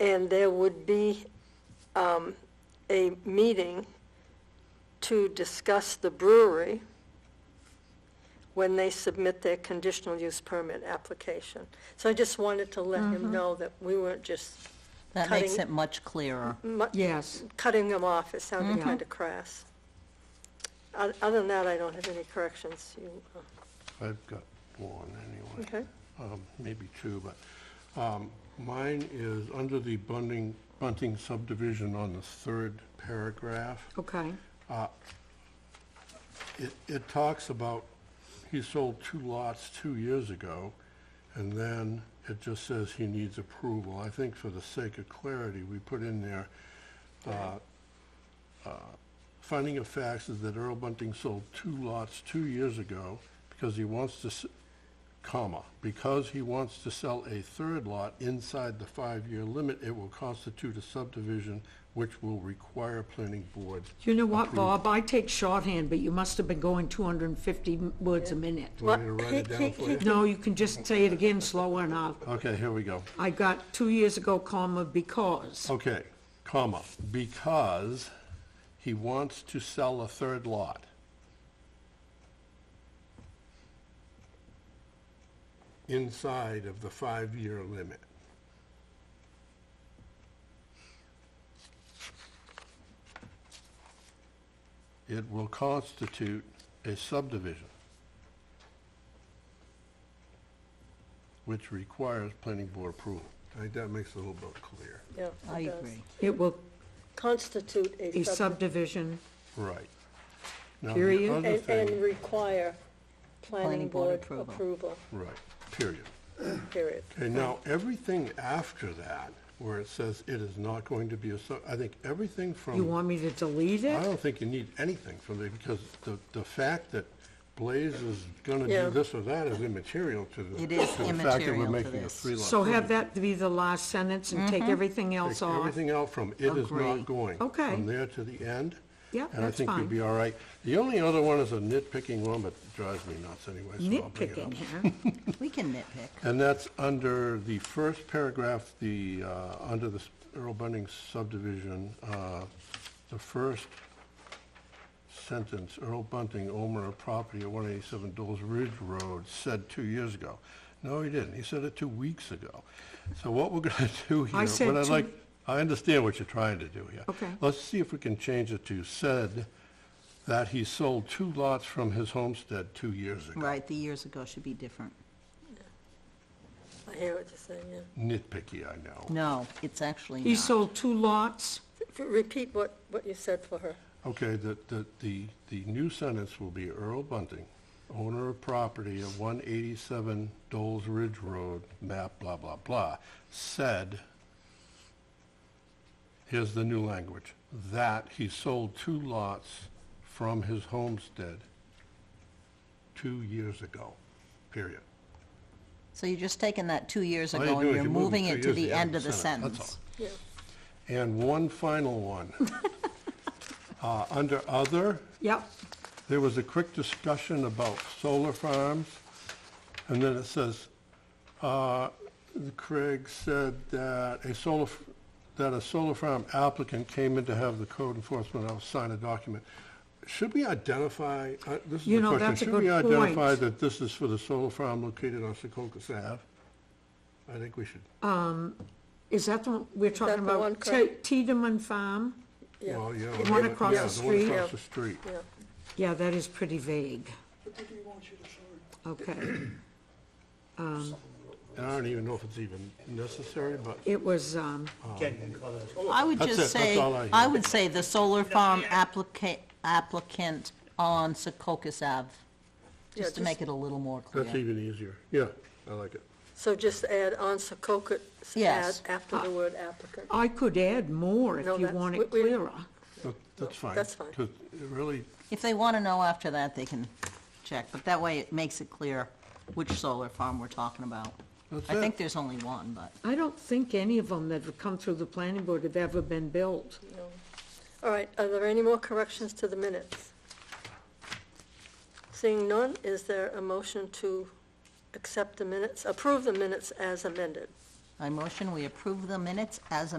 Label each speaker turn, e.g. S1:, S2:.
S1: and there would be um, a meeting to discuss the brewery when they submit their conditional use permit application. So I just wanted to let
S2: Mm-hmm.
S1: him know that we weren't just
S2: That makes
S1: Cutting-
S2: it much clearer.
S1: mu-
S3: Yes.
S1: cutting them off. It sounded
S3: Mhm.
S2: Mm-hmm.
S1: kind of crass. O- Other than that, I don't have any corrections. You- uh,
S4: I've got one anyway.
S1: Okay.
S4: Um, Maybe two, but um, mine is under the Bunting, Bunting subdivision on the third paragraph.
S3: Okay.
S4: It, it talks about, he sold two lots two years ago, and then it just says he needs approval. I think for the sake of clarity, we put in there, uh, uh, finding of facts is that Earl Bunting sold two lots two years ago because he wants to, s- comma, because he wants to sell a third lot inside the five-year limit, it will constitute a subdivision which will require planning board.
S3: You know what, Bob, I take shorthand, but you must have been going 250 words a minute.
S4: Do you want me to write it
S1: Well,
S4: down for you?
S3: No, you can just say it again slower and I'll,
S4: Okay, here we go.
S3: I got two years ago, comma, because.
S4: Okay, comma, because he wants to sell a third lot. Inside of the five-year limit. It will constitute a subdivision. Which requires planning board approval. I think that makes it a little bit clear.
S1: Yeah,
S2: I
S1: it does.
S2: agree.
S3: It will,
S1: Constitute
S3: a
S1: a subdivision.
S3: subdivision,
S4: Right. Now, the
S3: Period.
S4: other
S1: And, and
S4: thing-
S1: require planning
S2: Planning board
S1: board
S2: approval.
S1: approval,
S4: Right, period.
S1: period.
S4: And now, everything after that, where it says it is not going to be a, sub- I think everything from.
S3: you want me to delete
S4: I
S3: it?
S4: don't think you need anything from there, because the, the fact that Blaze is gonna
S1: Yeah.
S4: do this or that is immaterial to the.
S2: It is
S4: to the fact that
S2: immaterial
S4: we're
S2: to
S4: making a
S2: this.
S4: three-lot
S3: So have
S4: subdivision.
S3: that be the last sentence and
S1: Mm-hmm.
S3: take everything else
S4: Take
S3: off.
S4: Everything out from it is
S2: Agree.
S4: not going.
S3: Okay.
S4: From there to the end.
S3: Yeah,
S4: And I
S3: that's
S4: think you'll
S3: fine.
S4: be all right. The only other one is a nitpicking one, but drives me nuts anyway, so I'll bring it up.
S3: Nitpicking, huh?
S2: We can nitpick.
S4: And that's under the first paragraph, the, uh, under the Earl Bunting subdivision, uh, the first sentence, Earl Bunting, owner of property at 187 Dole's Ridge Road, said two years ago. No, he didn't. He said it two weeks ago. So what we're going to do here,
S3: I said
S4: what I'd
S3: two-
S4: like, I understand what you're trying to do here.
S3: Okay.
S4: Let's see if we can change it to said that he sold two lots from his homestead two years ago.
S2: Right, the years ago should be different.
S1: I hear what you're saying, yeah.
S4: Nitpicky, I know.
S2: No, it's actually
S3: He
S2: not.
S3: sold two lots,
S1: F- Repeat what, what you said for her.
S4: Okay, the, the, the, the new sentence will be Earl Bunting, owner of property at one eighty-seven Dole's Ridge Road, map blah, blah, blah, said, here's the new language, that he sold two lots from his homestead two years ago, period.
S2: So you're just taking that two years
S4: All you
S2: ago
S4: do
S2: and
S4: is
S2: you're
S4: you move
S2: moving
S4: two
S2: it to
S4: years
S2: the end of the sentence.
S4: that's all.
S1: Yeah,
S4: And one final one. Uh, under other,
S3: yep,
S4: There was a quick discussion about solar farms, and then it says, uh, Craig said that a solar, f- that a solar farm applicant came in to have the code enforcement officer sign a document. Should we identify, uh, this is
S3: You
S4: the
S3: know,
S4: question,
S3: that's a
S4: should we
S3: good point.
S4: identify that this is for the solar farm located on Secocas Ave? I think we should,
S3: is that the one we're talking
S1: the one,
S3: about? Te-
S1: correct?
S3: Tiedemann Farm?
S1: yeah.
S4: well, yeah.
S3: The one
S4: yeah,
S3: across
S4: yeah,
S3: the
S4: one
S3: street?
S4: across the street.
S1: Yeah,
S3: Yeah, that is pretty vague. Okay,
S4: And I don't even know if it's even necessary, but
S3: it was, um,
S2: I would
S4: That's
S2: just
S4: it, that's
S2: say,
S4: all I
S2: I
S4: hear.
S2: would say the solar farm applica- applicant on Secocas Ave,
S1: Yeah,
S2: just to make it a little more
S4: that's
S2: clear.
S4: even easier. Yeah, I like it.
S1: So just add on Secocas, add
S2: Yes. Uh,
S1: after the word applicant.
S3: I could add more if
S1: No,
S3: you
S1: that's-
S3: want it
S1: we- we-
S3: clearer.
S4: That- That's fine.
S1: that's fine.
S4: 'cause it really,
S2: If they want to know after that, they can check, but that way it makes it clear which solar farm we're talking about.
S4: That's
S2: I
S4: it.
S2: think there's only one, but.
S3: I don't think any of them that have come through the planning board have ever been built.
S1: All right, are there any more corrections to the minutes? Seeing none, is there a motion to accept the minutes, approve the minutes as amended?
S2: I motion we approve the minutes as